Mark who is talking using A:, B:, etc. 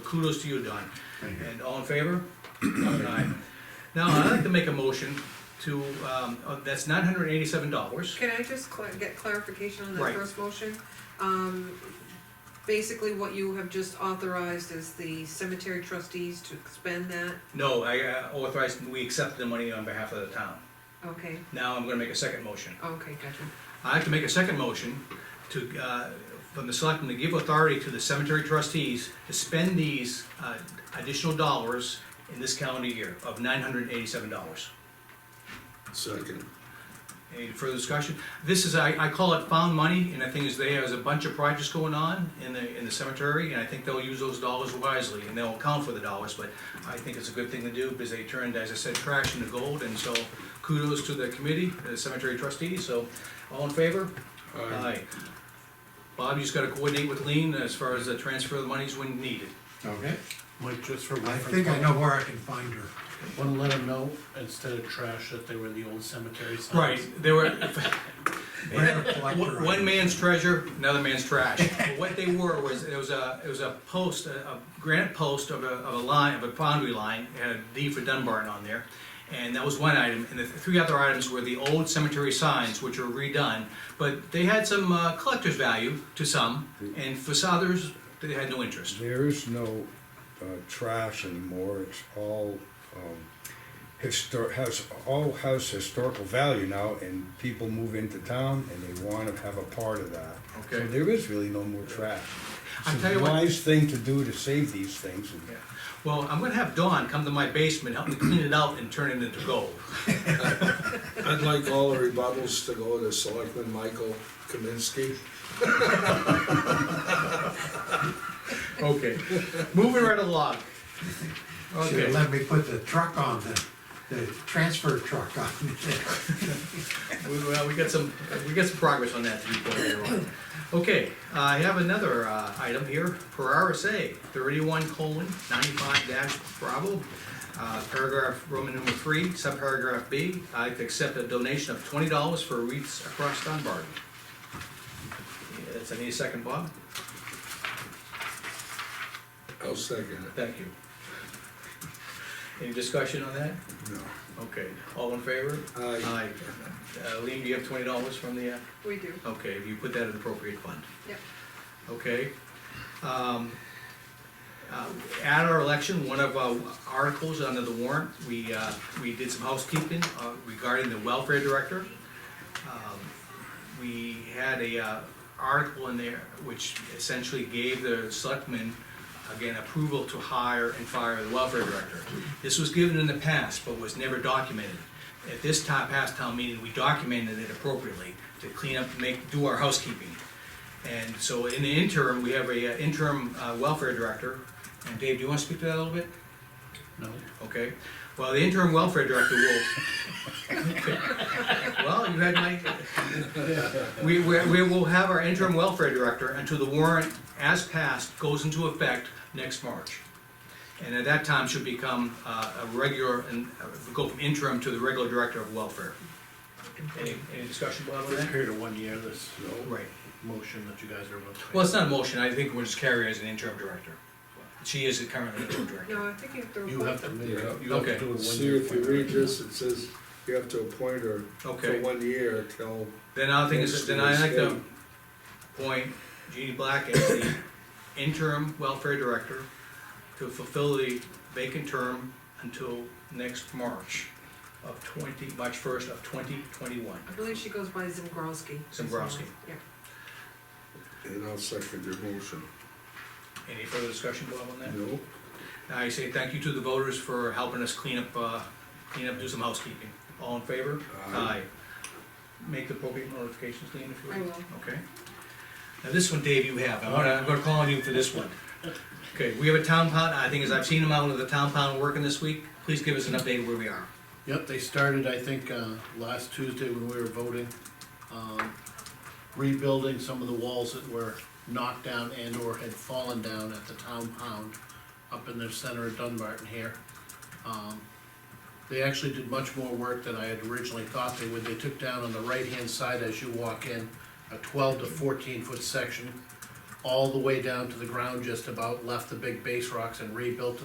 A: kudos to you, Don.
B: Thank you.
A: And all in favor? Aye. Now, I'd like to make a motion to, um, uh, that's nine hundred and eighty-seven dollars.
C: Can I just cla- get clarification on that
A: Right.
C: first motion? Um, basically, what you have just authorized is the cemetery trustees to expend that,
A: No, I uh, authorized, we accept the money on behalf of the town.
C: okay,
A: Now I'm gonna make a second motion.
C: okay, gotcha.
A: I'd like to make a second motion to, uh, from the selectmen to give authority to the cemetery trustees to spend these uh, additional dollars in this calendar year of nine hundred and eighty-seven dollars.
B: Second.
A: Any further discussion? This is, I, I call it found money, and the thing is, there's a bunch of projects going on in the, in the cemetery, and I think they'll use those dollars wisely, and they'll account for the dollars, but I think it's a good thing to do, because they turned, as I said, trash into gold, and so kudos to the committee, the cemetery trustees, so, all in favor?
B: Aye.
A: Bob, you just gotta coordinate with Lean as far as the transfer of the monies when needed.
D: Okay,
E: Mike, just for
D: I
E: reference.
D: think I know where I can find her.
E: Wanna let them know, instead of trash, that they were the old cemetery signs.
A: They were,
D: Where to collect her.
A: One man's treasure, another man's trash. But What they were was, it was a, it was a post, a a granite post of a, of a line, of a boundary line, it had D for Dunbarton on there. And that was one item, and the three other items were the old cemetery signs, which were redone. But they had some uh, collector's value to some, and for others, they had no interest.
F: There is no uh, trash anymore. It's all um, histor- has all has historical value now, and people move into town and they want to have a part of that.
A: Okay.
F: So there is really no more trash.
A: I
F: It's
A: tell
F: a
A: you what-
F: wise thing to do to save these things.
A: Yeah. Well, I'm gonna have Dawn come to my basement, help me clean it out and turn it into gold.
B: I'd like all the rebuttals to go to Selectman Michael Kaminsky.
A: Okay. Moving right along.
D: Should've
A: Okay.
D: let me put the truck on, the, the transfer truck on.
A: We, well, we got some, we got some progress on that to be pointed out. Okay, uh, I have another, uh, item here, per RSA, thirty-one colon ninety-five dash Bravo, uh, paragraph Roman number three, subparagraph B, I would accept a donation of twenty dollars for wreaths across Dunbar. Yeah, That's, I need a second, Bob?
B: I'll second it.
A: Thank you. Any discussion on that?
B: No.
A: Okay, all in favor?
B: Aye.
A: Aye. Uh, Lean, do you have twenty dollars from the, uh,
C: We do,
A: okay, you put that in appropriate fund?
C: Yep.
A: Okay. Um, uh, At our election, one of our articles under the warrant, we, uh, we did some housekeeping uh, regarding the welfare director. Um, We had a uh, article in there which essentially gave the selectmen, again, approval to hire and fire the welfare director. This was given in the past, but was never documented. At this time, past town meeting, we documented it appropriately to clean up, make, do our housekeeping. And so in the interim, we have a uh, interim uh, welfare director, and Dave, do you wanna speak to that a little bit?
E: No,
A: Okay, well, the interim welfare director will. Well, you had my, we, we, we will have our interim welfare director until the warrant as passed goes into effect next March. And at that time should become uh, a regular, and uh, go from interim to the regular director of welfare. Any, any discussion, Bob, on
E: for a
A: that?
E: period of one year, this
A: Right.
E: motion that you guys are about to make.
A: Well, it's not a motion, I think we're just carrying her as an interim director. She is currently interim director.
C: no, I think you have to.
E: You have to, make it.
B: Yeah.
E: you have
A: Okay.
E: to do it one year.
B: See, if you
E: appointment.
B: read this, it says you have to appoint her for
A: Okay,
B: one year till,
A: then I think it's, then I like to appoint Jeannie Black as the interim welfare director to fulfill the vacant term until next March of twenty, March first of twenty twenty-one.
C: I believe she goes by Zimbrowski.
A: Zembrowski.
C: Yeah,
B: and I'll second your motion.
A: Any further discussion, Bob, on that?
B: No?
A: I say thank you to the voters for helping us clean up, uh, clean up, do some housekeeping. All in favor?
B: Aye.
A: Make the appropriate notifications, Lean, if you
C: I
A: will.
C: will.
A: Okay. Now, this one, Dave, you have, I'm gonna, I'm gonna call on you for this one. Okay, we have a town pound, I think, as I've seen them out of the town pound working this week, please give us an update where we are.
E: Yep, they started, I think, uh, last Tuesday when we were voting, um, rebuilding some of the walls that were knocked down and or had fallen down at the town pound up in the center of Dunbarton here. Um, They actually did much more work than I had originally thought they would. They took down on the right-hand side as you walk in, a twelve to fourteen foot section all the way down to the ground just about, left the big base rocks and rebuilt